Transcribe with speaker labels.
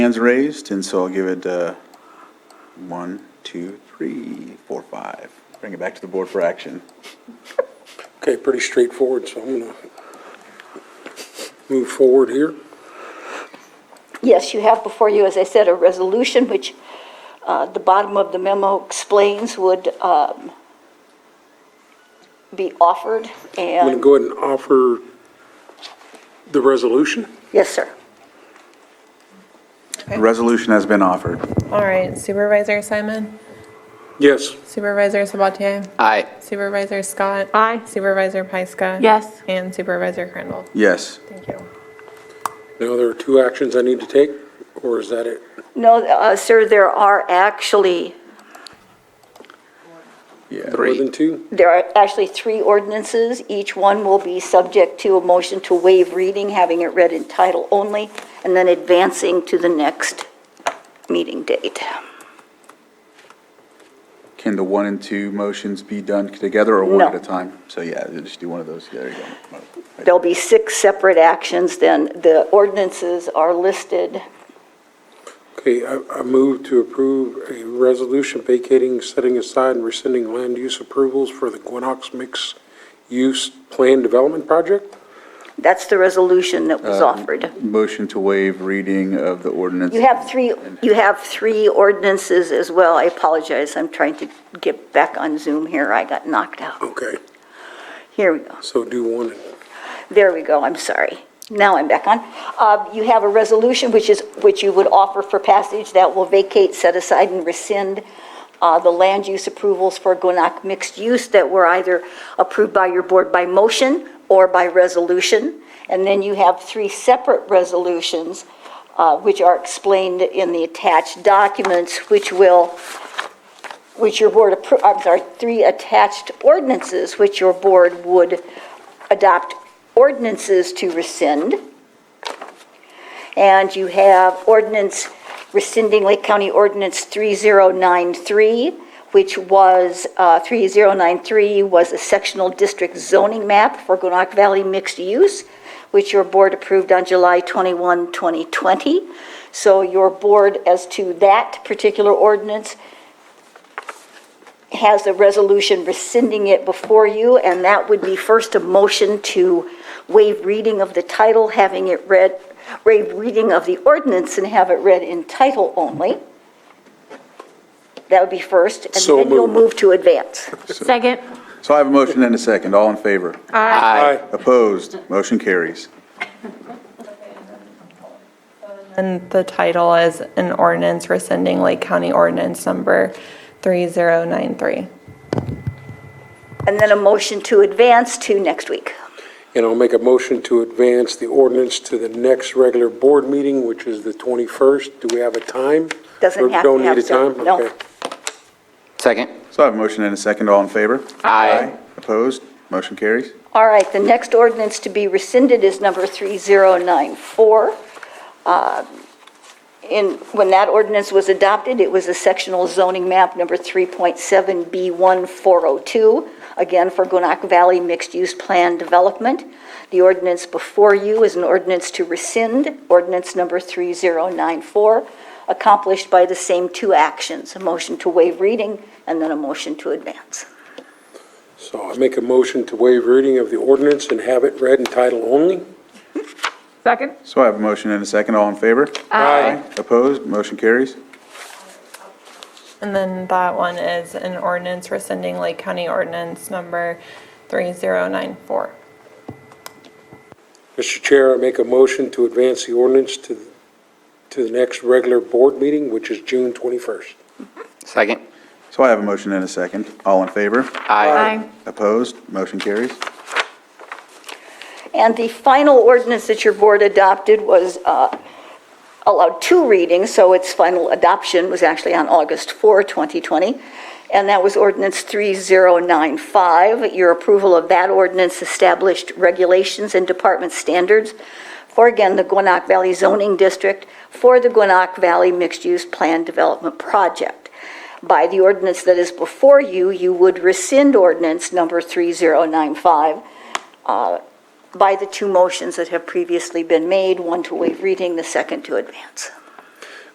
Speaker 1: Hands raised, and so I'll give it uh, one, two, three, four, five. Bring it back to the board for action.
Speaker 2: Okay, pretty straightforward, so I'm gonna move forward here.
Speaker 3: Yes, you have before you, as I said, a resolution which uh, the bottom of the memo explains would um, be offered
Speaker 2: I'm gonna
Speaker 3: and,
Speaker 2: go ahead and offer the resolution.
Speaker 3: yes, sir.
Speaker 1: The Resolution has been offered.
Speaker 4: All right, Supervisor Simon?
Speaker 2: Yes,
Speaker 4: Supervisor Sabatier?
Speaker 5: Aye.
Speaker 4: Supervisor Scott? Aye. Supervisor Pyska?
Speaker 6: Yes.
Speaker 4: And Supervisor Crandall?
Speaker 1: Yes.
Speaker 4: Thank you.
Speaker 2: now there are two actions I need to take, or is that it?
Speaker 3: No, uh, sir, there are actually,
Speaker 2: More than two?
Speaker 3: there are actually three ordinances. Each one will be subject to a motion to waive reading, having it read in title only, and then advancing to the next meeting date.
Speaker 1: Can the one and two motions be done together or one
Speaker 3: No.
Speaker 1: at a time? So yeah, just do one of those. There you go.
Speaker 3: There'll be six separate actions, then the ordinances are listed.
Speaker 2: Okay, I, I move to approve a resolution vacating, setting aside, and rescinding land use approvals for the Gwinox Mixed Use Plan Development Project.
Speaker 3: That's the resolution that was
Speaker 1: Uh,
Speaker 3: offered.
Speaker 1: Motion to waive reading of the ordinance.
Speaker 3: You have three, you have three ordinances as well. I apologize, I'm trying to get back on Zoom here, I got knocked out.
Speaker 2: Okay,
Speaker 3: Here we go,
Speaker 2: so do one.
Speaker 3: there we go, I'm sorry. Now I'm back on. Uh, You have a resolution which is, which you would offer for passage that will vacate, set aside, and rescind uh, the land use approvals for Gwinnett mixed use that were either approved by your board by motion or by resolution. And then you have three separate resolutions, uh, which are explained in the attached documents, which will, which your board, appro- I'm sorry, three attached ordinances, which your board would adopt ordinances to rescind. And you have ordinance rescinding Lake County Ordinance 3093, which was, uh, 3093 was a sectional district zoning map for Gwinnett Valley mixed use, which your board approved on July 21, 2020. So your board, as to that particular ordinance, has a resolution rescinding it before you, and that would be first a motion to waive reading of the title, having it read, waive reading of the ordinance and have it read in title only. That would be first, and
Speaker 2: So
Speaker 3: then you'll
Speaker 2: moved.
Speaker 3: move to advance.
Speaker 6: Second.
Speaker 1: So I have a motion and a second. All in favor?
Speaker 5: Aye.
Speaker 1: Opposed? Motion carries.
Speaker 4: And the title is an ordinance rescinding Lake County Ordinance Number 3093.
Speaker 3: And then a motion to advance to next week.
Speaker 2: And I'll make a motion to advance the ordinance to the next regular board meeting, which is the 21st. Do we have a time?
Speaker 3: Doesn't
Speaker 2: Or
Speaker 3: have to
Speaker 2: Don't need
Speaker 3: have
Speaker 2: a
Speaker 3: to-
Speaker 2: time?
Speaker 3: no.
Speaker 2: Okay.
Speaker 5: Second.
Speaker 1: So I have a motion and a second. All in favor?
Speaker 5: Aye.
Speaker 1: Opposed? Motion carries.
Speaker 3: All right, the next ordinance to be rescinded is number 3094. Um, In, when that ordinance was adopted, it was a sectional zoning map, number 3.7B1402, again for Gwinnett Valley Mixed Use Plan Development. The ordinance before you is an ordinance to rescind, ordinance number 3094, accomplished by the same two actions, a motion to waive reading and then a motion to advance.
Speaker 2: So I make a motion to waive reading of the ordinance and have it read in title only.
Speaker 6: Second.
Speaker 1: So I have a motion and a second. All in favor?
Speaker 2: Aye.
Speaker 1: Opposed? Motion carries.
Speaker 4: And then that one is an ordinance rescinding Lake County Ordinance Number 3094.
Speaker 2: Mr. Chair, I make a motion to advance the ordinance to, to the next regular board meeting, which is June 21st.
Speaker 5: Second.
Speaker 1: So I have a motion and a second. All in favor?
Speaker 5: Aye.
Speaker 1: Opposed? Motion carries.
Speaker 3: And the final ordinance that your board adopted was, uh, allowed two readings, so its final adoption was actually on August 4, 2020, and that was ordinance 3095. Your approval of that ordinance established regulations and department standards for, again, the Gwinnett Valley zoning district for the Gwinnett Valley mixed-use plan development project. By the ordinance that is before you, you would rescind ordinance number 3095 uh, by the two motions that have previously been made, one to waive reading, the second to advance.